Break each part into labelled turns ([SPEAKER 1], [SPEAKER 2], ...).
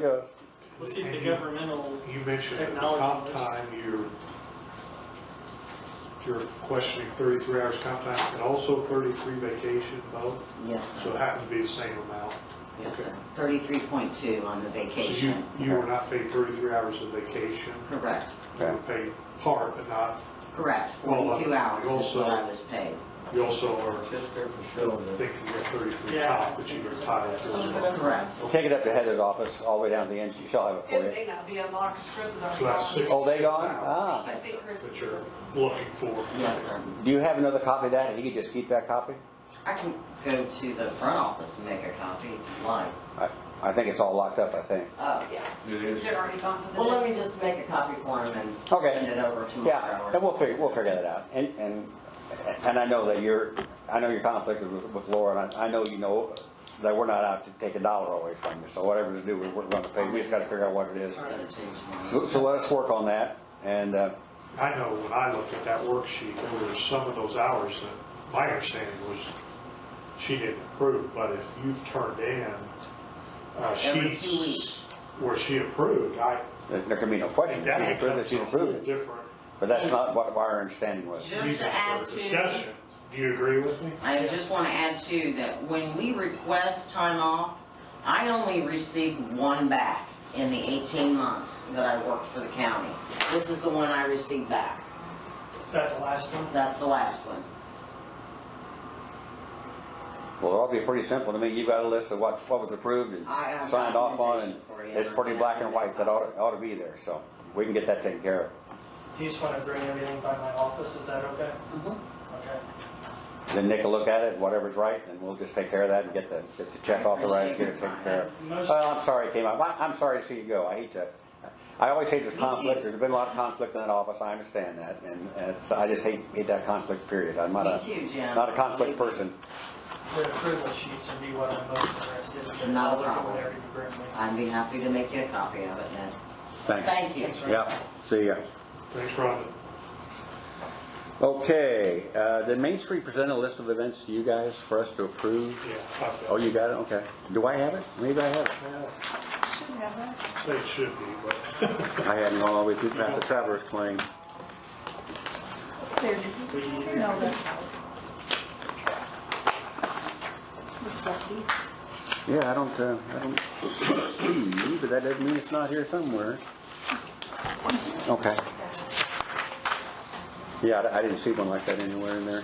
[SPEAKER 1] goes.
[SPEAKER 2] Let's see if the governmental,
[SPEAKER 3] You mentioned at the
[SPEAKER 2] Technology
[SPEAKER 3] comp
[SPEAKER 2] works.
[SPEAKER 3] time, you're, you're questioning 33 hours comp time and also 33 vacation both,
[SPEAKER 4] Yes,
[SPEAKER 3] so it happened to be the same amount.
[SPEAKER 4] yes,
[SPEAKER 3] Okay.
[SPEAKER 4] sir. Thirty-three point two on the
[SPEAKER 3] So you,
[SPEAKER 4] vacation.
[SPEAKER 3] you were not paid 33 hours of vacation,
[SPEAKER 4] Correct,
[SPEAKER 3] you were paid part, but not,
[SPEAKER 4] correct.
[SPEAKER 3] Well, uh,
[SPEAKER 4] Forty-two hours is
[SPEAKER 3] also-
[SPEAKER 4] what I was paid.
[SPEAKER 3] you also are
[SPEAKER 5] Just there for show. that-
[SPEAKER 3] thinking you're 33
[SPEAKER 2] Yeah.
[SPEAKER 3] comp, but you were entitled to as well.
[SPEAKER 4] Correct.
[SPEAKER 1] Take it up to Heather's office, all the way down to the end, she shall have it for
[SPEAKER 6] It
[SPEAKER 1] you.
[SPEAKER 6] may not be unlocked, because Chris is already
[SPEAKER 3] So that's
[SPEAKER 6] gone.
[SPEAKER 3] six.
[SPEAKER 1] Oh, they gone?
[SPEAKER 6] I
[SPEAKER 1] Ah.
[SPEAKER 6] think Chris
[SPEAKER 3] That
[SPEAKER 6] is.
[SPEAKER 3] you're looking for.
[SPEAKER 4] Yes, sir.
[SPEAKER 1] Do you have another copy of that? He could just keep that copy?
[SPEAKER 4] I can go to the front office and make a copy if you like.
[SPEAKER 1] I, I think it's all locked up, I think.
[SPEAKER 4] Oh,
[SPEAKER 6] Yeah,
[SPEAKER 5] It is.
[SPEAKER 6] they're already gone for
[SPEAKER 4] well,
[SPEAKER 6] the
[SPEAKER 4] let
[SPEAKER 6] day.
[SPEAKER 4] me just make a copy for him and
[SPEAKER 1] Okay.
[SPEAKER 4] send it over tomorrow.
[SPEAKER 1] Yeah,
[SPEAKER 4] or
[SPEAKER 1] and we'll
[SPEAKER 4] something.
[SPEAKER 1] figure, we'll figure that out. And, and, and I know that you're, I know you're conflicted with, with Laura, and I, I know you know that we're not out to take a dollar away from you, so whatever to do, we're, we're gonna pay, we just gotta figure out what it is.
[SPEAKER 4] I'll go to you
[SPEAKER 1] So,
[SPEAKER 4] tomorrow.
[SPEAKER 1] so let us work on that, and, uh,
[SPEAKER 3] I know when I looked at that worksheet, there were some of those hours that my understanding was she didn't approve, but if you've turned in uh,
[SPEAKER 4] Every two
[SPEAKER 3] sheets
[SPEAKER 4] weeks.
[SPEAKER 3] where she approved, I,
[SPEAKER 1] there- there can be no
[SPEAKER 3] and
[SPEAKER 1] question,
[SPEAKER 3] that
[SPEAKER 1] she's approved it,
[SPEAKER 3] becomes
[SPEAKER 1] she's
[SPEAKER 3] a whole
[SPEAKER 1] approved it.
[SPEAKER 3] different.
[SPEAKER 1] But that's not what our understanding was.
[SPEAKER 4] Just
[SPEAKER 3] reason
[SPEAKER 4] to
[SPEAKER 3] for
[SPEAKER 4] add to,
[SPEAKER 3] Discussion, do you agree with me?
[SPEAKER 4] I just want to add too, that when we request time off, I only received one back in the eighteen months that I worked for the county. This is the one I received back.
[SPEAKER 2] is that the last one?
[SPEAKER 4] That's the last one.
[SPEAKER 1] Well, it'll all be pretty simple to me. You've got a list of what, what was approved and
[SPEAKER 4] I have
[SPEAKER 1] signed off on, and
[SPEAKER 4] documentation for you.
[SPEAKER 1] it's pretty black and white. That ought, ought to be there, so we can get that taken care of.
[SPEAKER 2] Do you just want to bring everything by my office, is that okay?
[SPEAKER 4] Mhm.
[SPEAKER 2] Okay.
[SPEAKER 1] Then Nick will look at it, whatever's right, and we'll just take care of that and get the, get the check
[SPEAKER 4] I
[SPEAKER 1] authorized, get it
[SPEAKER 4] appreciate your
[SPEAKER 1] taken care of.
[SPEAKER 2] Most-
[SPEAKER 1] Well, I'm sorry it came up. I- I'm sorry to see you go. I hate to, I always hate this
[SPEAKER 4] Me
[SPEAKER 1] conflict.
[SPEAKER 4] too.
[SPEAKER 1] There's been a lot of conflict in that office. I understand that, and, and it's- I just hate, hate that conflict, period. I'm not
[SPEAKER 4] Me
[SPEAKER 1] a,
[SPEAKER 4] too, Jim.
[SPEAKER 1] not a conflict person.
[SPEAKER 2] The approval sheets would be what I'm most interested in.
[SPEAKER 4] Not
[SPEAKER 2] I'll
[SPEAKER 4] a
[SPEAKER 2] look at
[SPEAKER 4] problem.
[SPEAKER 2] Whatever you bring me.
[SPEAKER 4] I'd be happy to make you a copy of it, Ned.
[SPEAKER 1] Thanks.
[SPEAKER 4] Thank you.
[SPEAKER 2] Thanks, Ryan.
[SPEAKER 1] Yeah, see ya.
[SPEAKER 3] Thanks, Rhonda.
[SPEAKER 1] Okay, uh, did Main Street present a list of events to you guys for us to approve?
[SPEAKER 3] Yeah, I've
[SPEAKER 1] Oh,
[SPEAKER 3] got,
[SPEAKER 1] you got it, okay. Do I have it? Maybe I have it.
[SPEAKER 6] Should have that.
[SPEAKER 3] I'd say it should be, but
[SPEAKER 1] I hadn't gone all the way through past the traveler's claim.
[SPEAKER 7] There it is. No, that's not. Looks like these.
[SPEAKER 1] Yeah, I don't, uh, I don't see, but that doesn't mean it's not here somewhere. Okay. Yeah, I I didn't see one like that anywhere in there.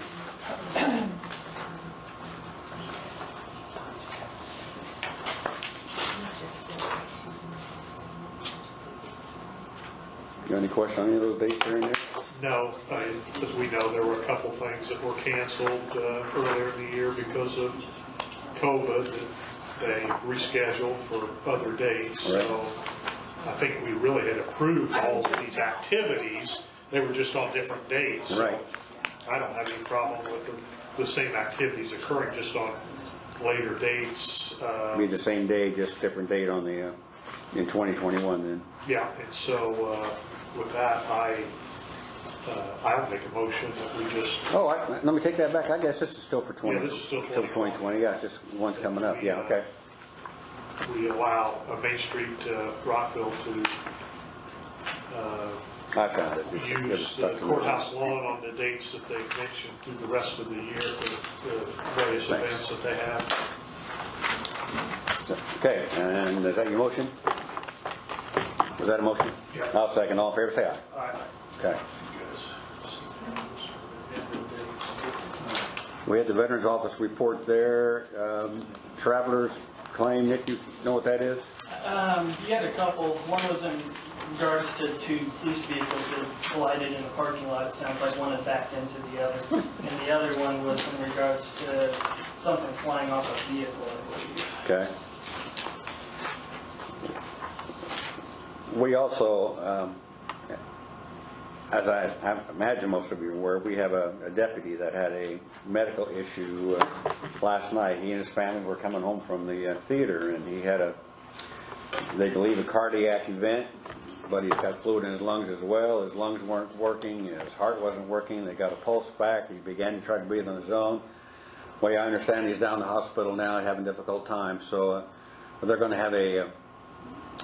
[SPEAKER 1] You got any question on any of those dates that are in there?
[SPEAKER 3] no, I, as we know, there were a couple things that were canceled uh, earlier in the year because of COVID that they rescheduled for other dates.
[SPEAKER 1] Right.
[SPEAKER 3] So I think we really had approved all of these activities. They were just on different dates. So
[SPEAKER 1] Right.
[SPEAKER 3] I don't have any problem with the- the same activities occurring just on later dates. uh,
[SPEAKER 1] Be the same day, just different date on the, uh, in 2021 then.
[SPEAKER 3] Yeah, and so uh, with that, I, uh, I'll make a motion that we just
[SPEAKER 1] Oh, I, let me take that back. I guess this is still for 20.
[SPEAKER 3] Yeah, this is still
[SPEAKER 1] Still 2020, yeah, it's just one's coming up, yeah, okay.
[SPEAKER 3] we allow uh, Main Street uh, Rockville to
[SPEAKER 1] I found it. It's- it was
[SPEAKER 3] use the
[SPEAKER 1] stuck to me.
[SPEAKER 3] courthouse lawn on the dates that they've mentioned through the rest of the year for the various
[SPEAKER 1] Thanks.
[SPEAKER 3] events that they have.
[SPEAKER 1] Okay, and is that your motion? Was that a motion?
[SPEAKER 3] Yeah.
[SPEAKER 1] I'll second, all in favor, say aye.
[SPEAKER 3] All right.
[SPEAKER 1] Okay.
[SPEAKER 3] You guys.
[SPEAKER 1] We had the Veterans Office report there, um, travelers claim, Nick, you know what that is?
[SPEAKER 2] Um, you had a couple, one was in regards to two police vehicles that collided in a parking lot, it sounds like one had backed into the other. And the other one was in regards to something flying off a vehicle, I believe.
[SPEAKER 1] Okay. We also, um, as I I imagine most of you are aware, we have a a deputy that had a medical issue uh, last night. He and his family were coming home from the uh, theater, and he had a, they believe a cardiac event, but he's got fluid in his lungs as well. His lungs weren't working, his heart wasn't working, they got a pulse back, he began to try to breathe on his own. Well, I understand he's down in the hospital now, having a difficult time, so uh, they're going to have a, uh,